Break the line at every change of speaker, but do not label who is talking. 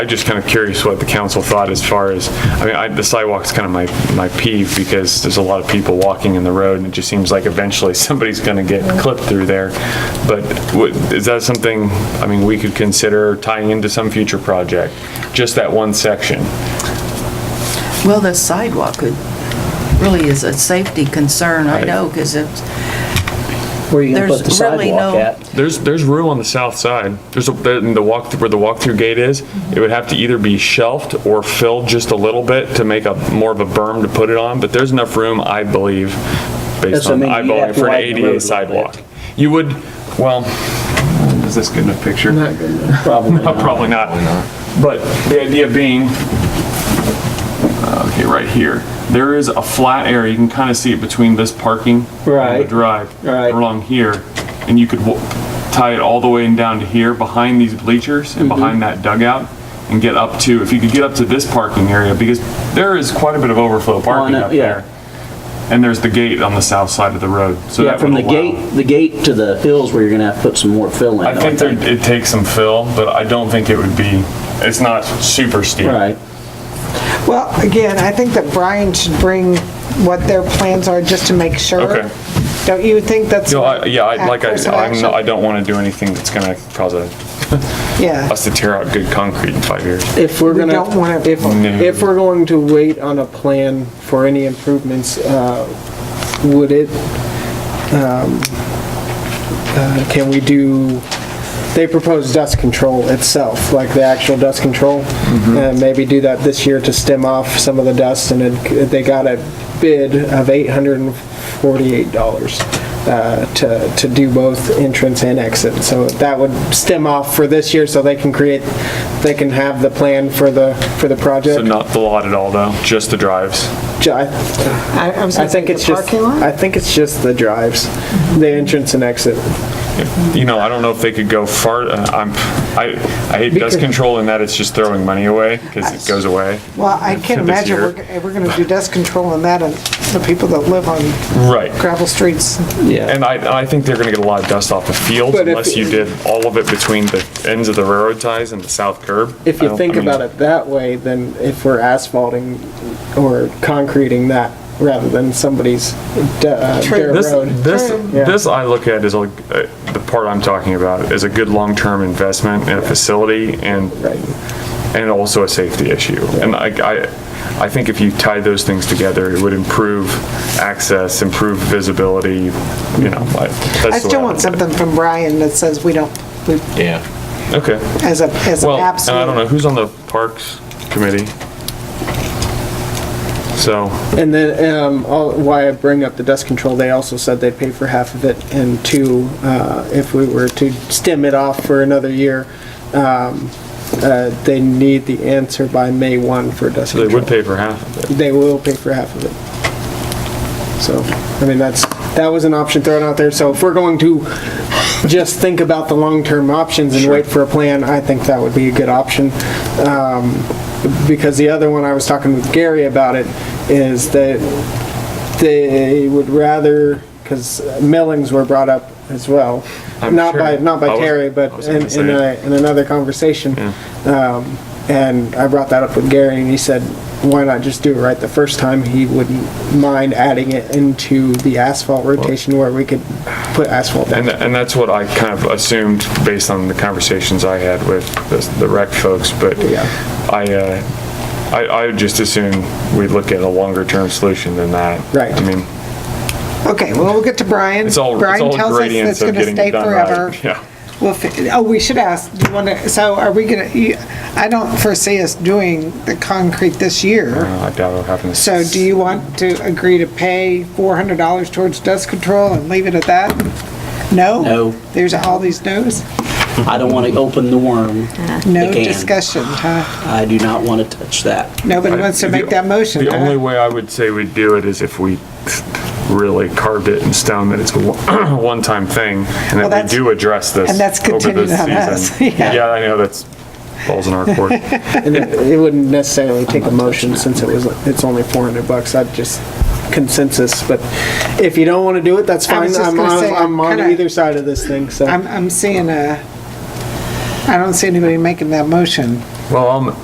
I'm just kind of curious what the council thought as far as, I mean, I, the sidewalk's kind of my, my peeve because there's a lot of people walking in the road and it just seems like eventually somebody's going to get clipped through there. But would- is that something, I mean, we could consider tying into some future project? Just that one section?
Well, the sidewalk could, really is a safety concern, I know, because it's,
Where are you gonna
There's
put the
really
sidewalk
no-
at?
There's, there's room on the south side. There's, a- the the walk, where the walk-through gate is, it would have to either be shelved or filled just a little bit to make a, more of a berm to put it on, but there's enough room, I believe,
That's
based
what I
on
mean, you'd
eyeballing
have to
for an
widen the road a
ADA
little
sidewalk.
bit.
You would, well, is this good enough picture?
Uh, Probably
No,
not.
Probably not. But the idea being, uh, okay, right here, there is a flat area, you can kind of see it between this parking and the
Right.
drive.
Right.
Along here, and you could wa- tie it all the way and down to here, behind these bleachers
Mm-hmm.
and behind that dugout, and get up to, if you could get up to this parking area, because there is quite a bit of overflow parking
it,
up
yeah.
there. And there's the gate on the south side of the road, so
Yeah,
that
from
would
the
allow-
gate, the gate to the hills where you're gonna have to put some more fill in.
I
though,
think there- it takes some fill, but I don't think it would be, it's not super steep.
Right.
Well, again, I think that Brian should bring what their plans are just to make sure.
Okay.
Don't you think that's?
No, I, yeah, I, like I,
course of
I'm, not- I
action?
don't want to do anything that's gonna cause a,
Yeah,
us to tear out good concrete in five years.
If we're
We
gonna,
don't wanna-
if,
No.
if we're going to wait on a plan for any improvements, uh, would it, um, uh, can we do, they propose dust control itself, like the actual dust control?
Mm-hmm.
Uh, Maybe do that this year to stem off some of the dust, and it- they got a bid of $848 uh, to, to do both entrance and exit. So that would stem off for this year, so they can create, they can have the plan for the, for the project.
So not the lot at all though, just the drives.
Ju- I-
I, I was
I
gonna say
think it's
the
just,
parking lot.
I think it's just the drives, the entrance and exit.
You know, I don't know if they could go far, uh, I'm, I, I hate dust
Because-
control in that it's just throwing money away because it goes away.
Well, I can't
This
imagine
year.
we're, g- we're gonna do dust control on that and the people that live on
Right.
gravel streets.
And I, I think they're gonna get a lot of dust off the fields
But if-
unless you did all of it between the ends of the railroad ties and the south curb.
If
I
you
don't-
think
I mean,
about it that way, then if we're asphalting or concreting that rather than somebody's d- uh, dirt
This,
road.
this,
Yeah.
this I look at is like, uh, the part I'm talking about is a good long-term investment in a facility and
Right.
and also a safety issue. And I, I, I think if you tie those things together, it would improve access, improve visibility, you know, like. that's the
I
way
still
look at
want
it.
something from Brian that says we don't, we,
Yeah.
Okay.
as a, as an
Well, and I don't know,
absolute.
who's on the Parks Committee? So,
And then, um, all, why I bring up the dust control, they also said they'd pay for half of it, and two, uh, if we were to stem it off for another year, um, uh, they need the answer by May one for dust
they
control.
would pay for half of it.
they will pay for half of it. So, I mean, that's, that was an option thrown out there, so if we're going to just think about the long-term options and wait for a plan, I think that would be a good option. Um, Because the other one, I was talking with Gary about it, is that they would rather, because millings were brought up as well,
I'm
not by,
sure.
not
I
by
was-
Terry,
I
but
was
in,
gonna
in
say.
a, in another conversation. Um, And I brought that up with Gary, and he said, why not just do it right the first time? He wouldn't mind adding it into the asphalt rotation where we could put asphalt down.
And, tha- and that's what I kind of assumed based on the conversations I had with the- the rec folks, but
Yeah.
I, uh, I, I would just assume we'd look at a longer term solution than that.
Right.
I mean,
Okay, well, we'll get to Brian.
it's all, it's
Brian
all
tells us
gradients
it's
of
gonna
getting
stay
it done right.
forever.
Yeah.
Well, fi- oh, we should ask, do you want to, so are we going to, I don't foresee us doing the concrete this year.
Uh, I doubt it'll happen. this-
So do you want to agree to pay $400 towards dust control and leave it at that? No?
No.
There's all these no's?
I don't wanna open the worm.
No
They can.
discussion, huh?
I do not wanna touch that.
Nobody wants to
The-
make that motion,
The only
huh?
way I would say we'd do it is if we really carved it in stone that it's a one- one-time thing and
Well,
that we
that's-
do address this.
and that's
over this
contingent on us,
season.
yeah.
Yeah, I know, that's balls in our court.
And it it wouldn't necessarily take a motion since it was, it's only 400 bucks. I'd just consensus, but if you don't want to do it, that's
I
fine.
was just
I'm
gonna
on,
say,
I'm on
kinda-
either side of this thing, so.
I'm, I'm seeing a, I don't see anybody making that motion.
Well, I'll,